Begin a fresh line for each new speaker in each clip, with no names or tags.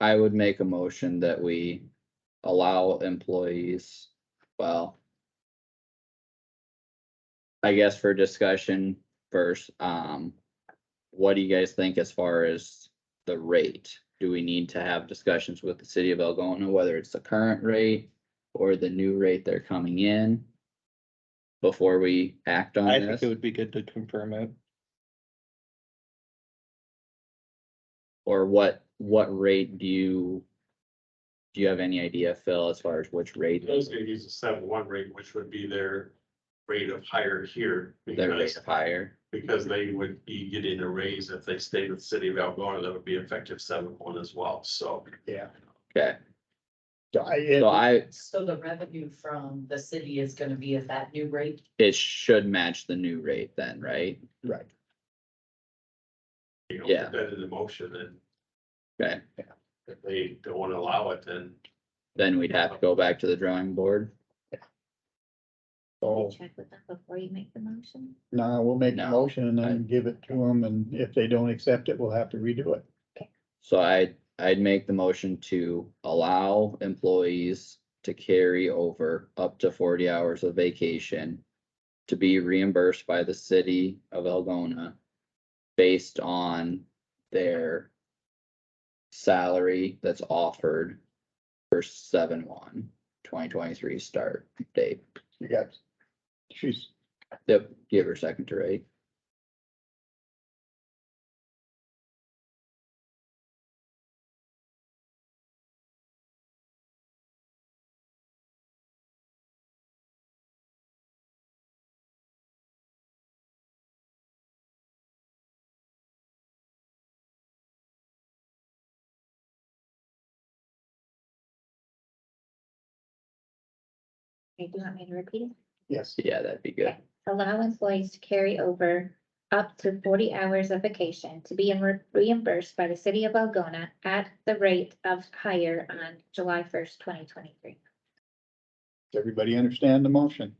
I would make a motion that we allow employees, well. I guess for discussion first, um, what do you guys think as far as the rate? Do we need to have discussions with the city of Algonah, whether it's the current rate or the new rate they're coming in? Before we act on
I think it
this,
would be good to confirm it.
or what, what rate do you? Do you have any idea, Phil, as far as which rate?
Those gonna use a seven one rate, which would be their rate of hire here.
Their rate
Because,
of hire?
because they would be getting a raise if they stayed with the city of Algonah, that would be effective seven one as well, so.
Yeah.
Okay, so
I,
I,
So the revenue from the city is gonna be at that new rate?
it should match the new rate then, right?
right.
you know,
Yeah.
Put that in the motion and
Okay,
if they don't wanna allow it, then
then we'd have to go back to the drawing board.
Can you
So
Check with them before you make the motion.
now we'll make
No,
a motion and
I-
then give it to them. And if they don't accept it, we'll have to redo it.
So I, I'd make the motion to allow employees to carry over up to forty hours of vacation to be reimbursed by the city of Algona based on their salary that's offered for seven one, twenty twenty-three start date.
You got, she's,
Yep, give her a second to rate.
Okay, do you want me to repeat it?
yes,
Yeah, that'd be good.
Allow employees to carry over up to forty hours of vacation to be re- reimbursed by the city of Algona at the rate of hire on July first, twenty twenty-three.
Does everybody understand the motion?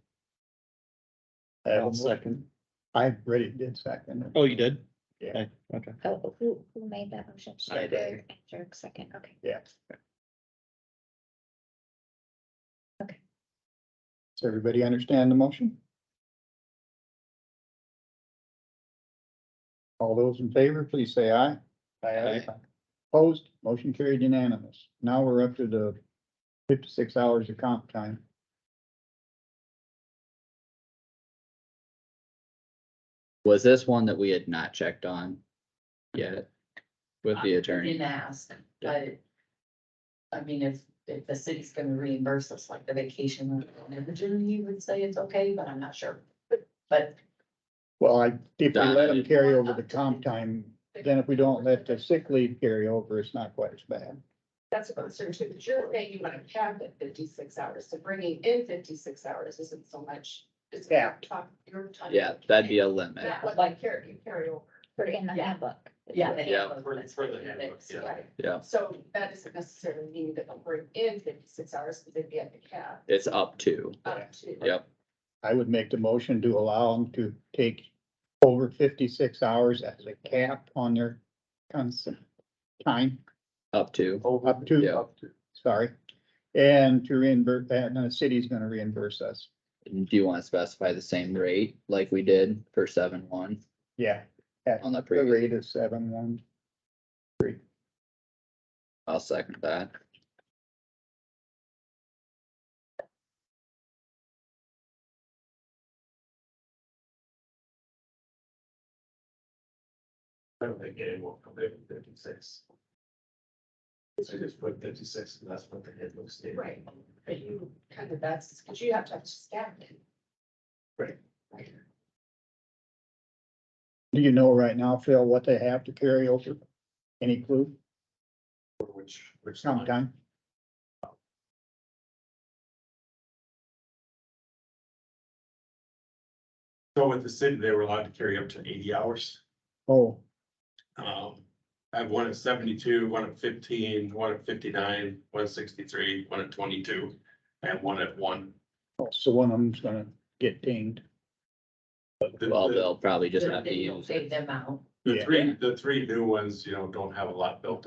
I'll second.
I already did second. it.
Oh, you did?
Yeah.
Okay.
Oh, who, who made that motion?
I did.
Jerk second, okay.
Yeah.
Okay.
Does everybody understand the motion? All those in favor, please say aye.
Aye.
Opposed, motion carried unanimous. Now we're up to the fifty-six hours of comp time.
Was this one that we had not checked on yet with Uh, the attorney?
Didn't ask, but I mean, if, if the city's gonna reimburse us like the vacation and everything, you would say it's okay, but I'm not sure. But
Well, I, if we let them carry over the comp time, then if we don't let the sick leave carry over, it's not quite as bad.
That's what I'm saying too, but you're saying you want to cap at fifty-six hours, so bringing in fifty-six hours isn't so much. it's not
Capped.
top- Your time.
Yeah, that'd be a limit.
Yeah, but like carry, you carry over.
Put it in the
Yeah.
handbook.
yeah. they
Yeah.
have a-
For the- for the handbook, yeah.
Right.
Yeah.
So that doesn't necessarily mean that they'll bring in fifty-six hours, but they'd be at the cap.
It's up to,
up to-
yep,
I would make the motion to allow them to take over fifty-six hours as a cap on their constant time,
up to.
up
Yeah.
to, sorry. And to reimburse, and the city's gonna reimburse us.
Do you want to specify the same rate like we did for seven one
Yeah,
on the
the
previous?
rate is seven one.
I'll second that.
I don't think anyone will come in with fifty-six. So just put fifty-six and that's what the head looks like.
Right, but you kind of, that's, because you have to have staff in.
Right.
Right.
Do you know right now, Phil, what they have to carry over? Any clue?
Which, which.
Comp
line.
time?
So with the city, they were allowed to carry up to eighty hours.
Oh,
Um, I have one at seventy-two, one at fifteen, one at fifty-nine, one at sixty-three, one at twenty-two, and one at one.
oh, so one of them's gonna get dinged.
The-
Well,
the-
they'll probably just have to
They don't
use.
pay them out.
The
Yeah.
three, the three new ones, you know, don't have a lot built up.